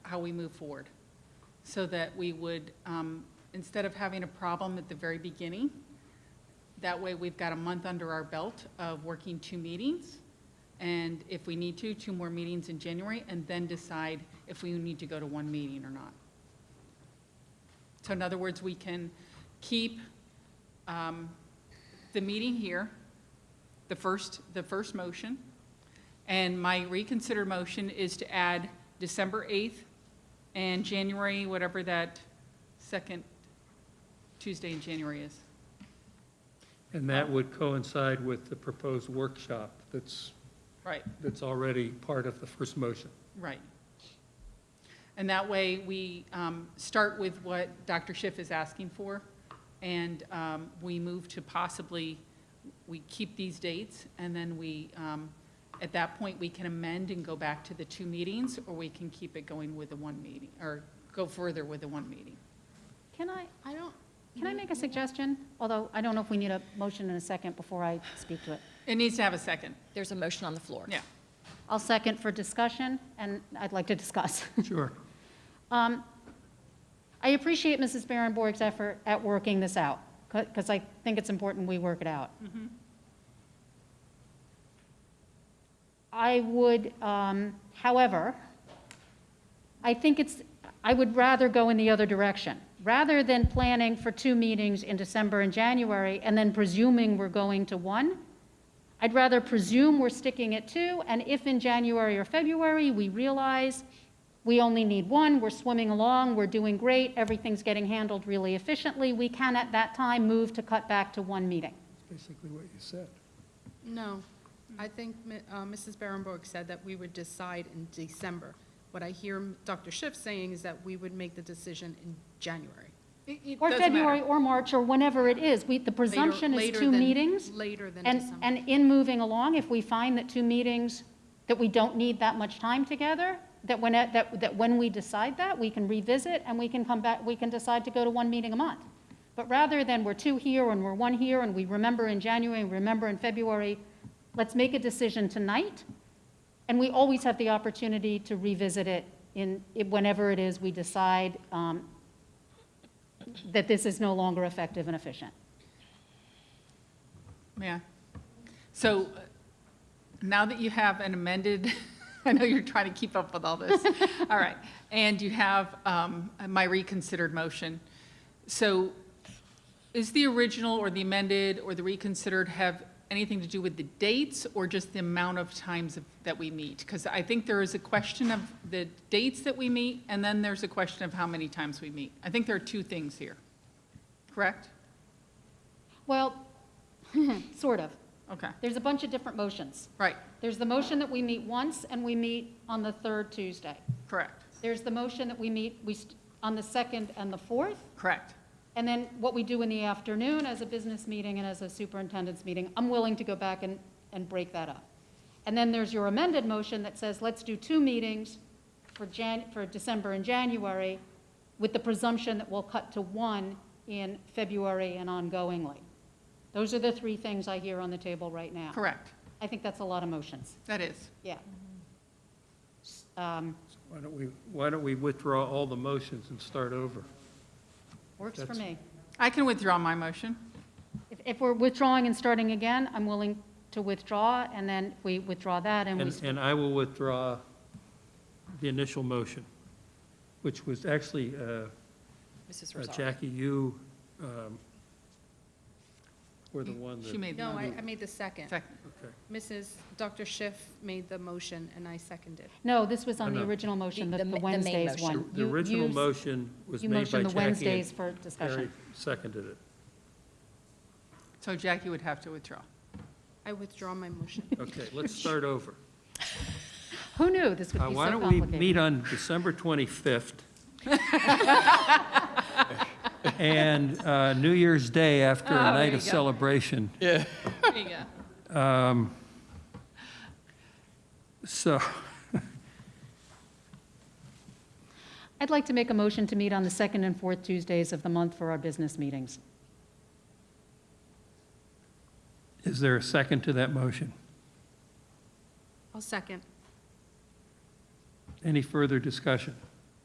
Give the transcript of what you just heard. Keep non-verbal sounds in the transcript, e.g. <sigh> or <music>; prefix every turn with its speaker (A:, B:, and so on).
A: how we move forward. So that we would, um, instead of having a problem at the very beginning, that way we've got a month under our belt of working two meetings. And if we need to, two more meetings in January, and then decide if we need to go to one meeting or not. So in other words, we can keep um, the meeting here, the first, the first motion. And my reconsider motion is to add December 8th and January, whatever that second Tuesday in January is.
B: And that would coincide with the proposed workshop that's,
A: Right,
B: that's already part of the first motion.
A: right. And that way, we um, start with what Dr. Schiff is asking for, and um, we move to possibly, we keep these dates, and then we, um, at that point, we can amend and go back to the two meetings, or we can keep it going with the one meeting, or go further with the one meeting.
C: Can I, I don't, can I make a suggestion? Although I don't know if we need a motion in a second before I speak to it.
A: It needs to have a second,
D: There's a motion on the floor.
A: yeah.
C: I'll second for discussion, and I'd like to discuss. <laughs>
B: Sure.
C: Um, I appreciate Mrs. Barrenborg's effort at working this out, because I think it's important we work it out. I would, um, however, I think it's, I would rather go in the other direction. Rather than planning for two meetings in December and January, and then presuming we're going to one, I'd rather presume we're sticking at two, and if in January or February, we realize we only need one, we're swimming along, we're doing great, everything's getting handled really efficiently, we can at that time move to cut back to one meeting.
B: Basically what you said.
E: No, I think Mi- uh, Mrs. Berenborg said that we would decide in December. What I hear M- Dr. Schiff saying is that we would make the decision in January.
A: It- it
C: Or
A: doesn't matter.
C: February, or March, or whenever it is. We, the
E: Later-
C: presumption is
E: later
C: two
E: than-
C: meetings.
E: Later than
C: And,
E: December.
C: and in moving along, if we find that two meetings, that we don't need that much time together, that when, it- that, that when we decide that, we can revisit and we can come back, we can decide to go to one meeting a month. But rather than we're two here and we're one here and we remember in January and remember in February, let's make a decision tonight. And we always have the opportunity to revisit it in, whenever it is we decide um, that this is no longer effective and efficient.
A: Yeah. So uh, now that you have an amended, <laughs> I know you're trying to keep up with all this. All right. And you have um, my reconsidered motion. So is the original or the amended or the reconsidered have anything to do with the dates or just the amount of times of- that we meet? Because I think there is a question of the dates that we meet, and then there's a question of how many times we meet. I think there are two things here, correct?
C: Well, <laughs> sort of.
A: Okay,
C: There's a bunch of different motions.
A: right,
C: There's the motion that we meet once and we meet on the third Tuesday.
A: correct,
C: There's the motion that we meet, we, st- on the second and the fourth.
A: correct.
C: And then what we do in the afternoon as a business meeting and as a superintendent's meeting, I'm willing to go back and, and break that up. And then there's your amended motion that says, let's do two meetings for Jan, for December and January with the presumption that we'll cut to one in February and ongoingly. Those are the three things I hear on the table right now.
A: Correct,
C: I think that's a lot of motions,
A: that is.
C: yeah. Um,
B: Why don't we, why don't we withdraw all the motions and start over?
C: Works for
B: That's-
C: me.
A: I can withdraw my motion.
C: If, if we're withdrawing and starting again, I'm willing to withdraw, and then we withdraw that, and we,
B: And, and I will withdraw the initial motion, which was actually, uh,
D: Mrs.
B: uh,
D: Rosaro.
B: Jackie, you um, were the one that.
A: She made the
E: No, I,
A: motion.
E: I made the second.
A: Second.
B: Okay.
E: Mrs., Dr. Schiff made the motion and I seconded.
C: no, this was on
B: No,
C: the
B: Oh, no.
C: original motion, the
D: The- the ma-
C: the
D: the main
C: Wednesdays
D: motion.
C: one.
B: The
C: You- you
B: original
C: s-
B: motion was
C: You
B: made by
C: motioned the
B: Jackie
C: Wednesdays
B: and
C: for
B: Harry
C: discussion.
B: seconded it.
C: <laughs>
A: So Jackie would have to withdraw.
E: I withdraw
C: <laughs>
E: my motion.
B: Okay, let's start over.
C: Who knew this would
B: Uh,
C: be so
B: Why don't we
C: complicated?
B: meet on December 25th?
A: <laughs>
B: And uh, New Year's Day after a
A: Ah, there
B: night
A: you
B: of
A: go.
B: celebration.
A: There you go.
B: Um, So,
C: I'd like to make a motion to meet on the second and fourth Tuesdays of the month for our business meetings.
B: is there a second to that motion?
E: I'll second.
B: Any further discussion?